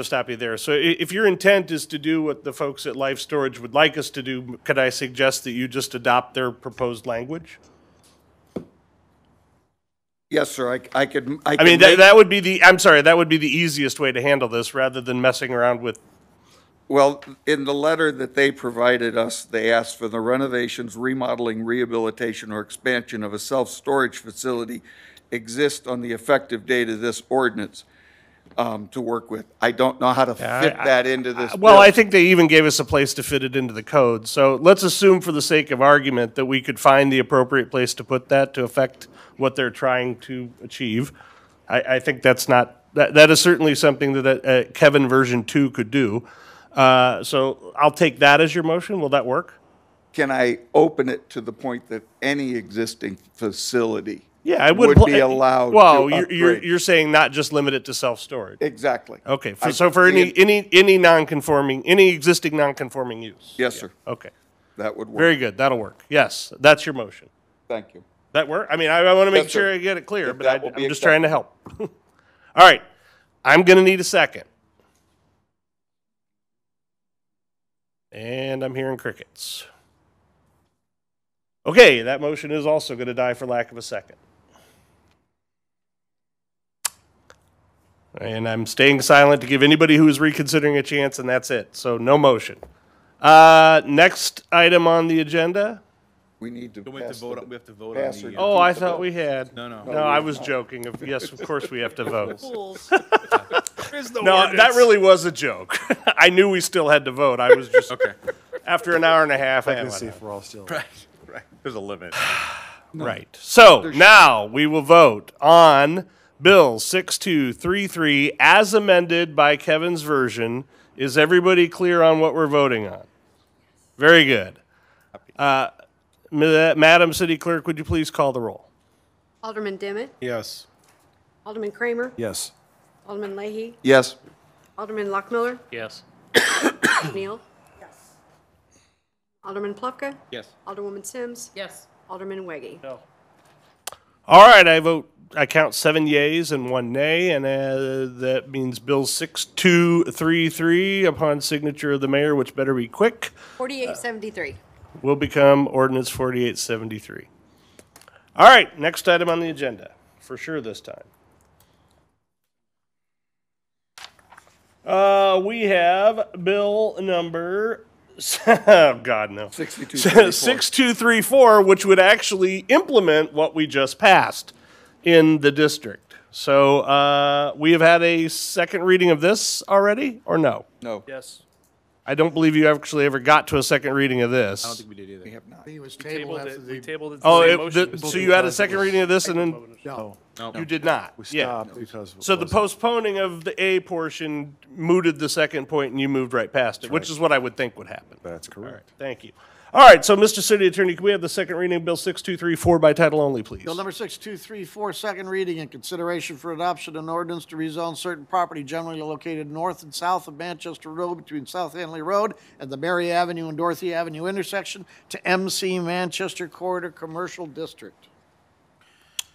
I'll stop you there. So i- if your intent is to do what the folks at Life Storage would like us to do, could I suggest that you just adopt their proposed language? Yes, sir, I, I could, I I mean, could that, make, that would be the, I'm sorry, that would be the easiest way to handle this rather than messing around with, well, in the letter that they provided us, they asked for the renovations, remodeling, rehabilitation, or expansion of a self-storage facility exist on the effective date of this ordinance, um, to work with. I don't know how to fit that into this well, I bill. think they even gave us a place to fit it into the code. So let's assume for the sake of argument that we could find the appropriate place to put that to affect what they're trying to achieve. I, I think that's not, that, that is certainly something that uh, Kevin version two could do. Uh, so I'll take that as your motion. Will that work? Can I open it to the point that any existing facility? Yeah, I would. pl- be allowed to Well, you're, you're, upgrade. you're saying not just limit it to self-storage. Exactly. Okay, for, I- so for any, any, any non-conforming, any existing non-conforming use? Yes, sir, Okay, that would work, very good, that'll work. Yes, that's your motion. thank you. That work? I mean, I, I want to make Yes, sure sir. I get it clear, If but I, that will be I'm just trying to help. All right, I'm going to need a second. And I'm hearing crickets. Okay, that motion is also going to die for lack of a second. And I'm staying silent to give anybody who is reconsidering a chance, and that's it. So no motion. Uh, next item on the agenda. We need to We have pass to vote, on- the we have to vote on pass or the, uh, Oh, I defeat the thought bill. we had. No, no. No, I was joking. Of Yes, of course we have to vote. There's no No, that ordinance. really was a joke. I knew we still had to vote. I was just, Okay, after an hour and a half, I Let's went, see if we're all still. right, there's a limit. right. So now we will vote on Bill 6233 as amended by Kevin's version. Is everybody clear on what we're voting on? Very good. Uh, Ma- Madam City Clerk, would you please call the roll? Alderman Dimmitt, Yes. Alderman Kramer, Yes. Alderman Leahy, Yes, Alderman Lockmiller, Yes. Neal. Yes. Alderman Plufka, Yes. Alderwoman Sims, Yes. Alderman Weggie. All right, I vote, I count seven yays and one nay, and uh, that means Bill 6233, upon signature of the mayor, which better be quick, 4873. will become ordinance 4873. All right, next item on the agenda, for sure this time. Uh, we have bill number, oh, God, no. 62. 6234, which would actually implement what we just passed in the district. So uh, we have had a second reading of this already, or no? No, Yes. I don't believe you actually ever got to a second reading of this. I don't think we did either. have not. It was tabled after the. We tabled it. oh, it, the- so you had a second reading of this, and then No, you did not. we yeah. stopped because. it So the wasn't- postponing of the A portion mooted the second point, and you moved right past it, which is what I would think would happen. That's correct. Thank you. All right, so Mr. City Attorney, can we have the second reading of Bill 6234 by title only, please? Bill number 6234, second reading and consideration for adoption an ordinance to rezone certain property generally located north and south of Manchester Road between South Hanley Road and the Mary Avenue and Dorothy Avenue intersection to MC Manchester Corridor Commercial District.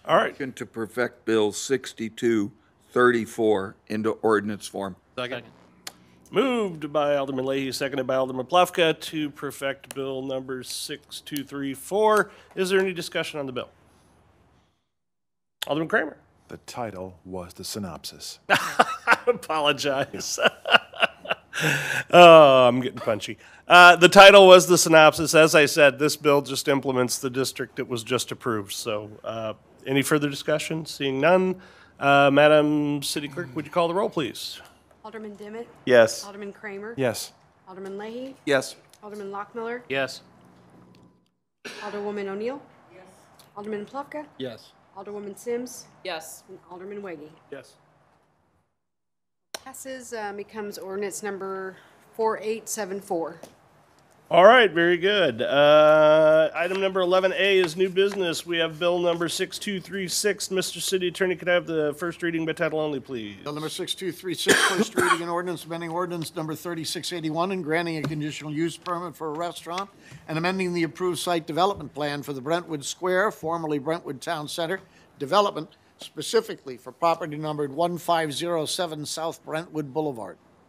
All right. Motion to perfect Bill 6234 into ordinance form. Moved by Alderman Leahy, seconded by Alderman Plufka to perfect Bill number 6234. Is there any discussion on the bill? Alderman Kramer? The title was the synopsis. Ah. Apologize. oh, I'm getting punchy. Uh, the title was the synopsis. As I said, this bill just implements the district that was just approved. So, uh, any further discussion? Seeing none, uh, Madam City Clerk, would you call the roll, please? Alderman Dimmitt, Yes. Alderman Kramer. Yes. Alderman Leahy, Yes. Alderman Lockmiller, Yes. Alderwoman O'Neill. Yes. Alderman Plufka, Yes. Alderwoman Sims, Yes. and Alderman Weggie. Yes. Passes, uh, becomes ordinance number 4874. All right, very good. Uh, Item number 11A is new business. We have bill number 6236. Mr. City Attorney, could I have the first reading by title only, please? Bill number 6236, first reading and ordinance amending ordinance number 3681 and granting a conditional use permit for a restaurant and amending the approved site development plan for the Brentwood Square, formerly Brentwood Town Center, development specifically for property numbered 1507 South Brentwood Boulevard.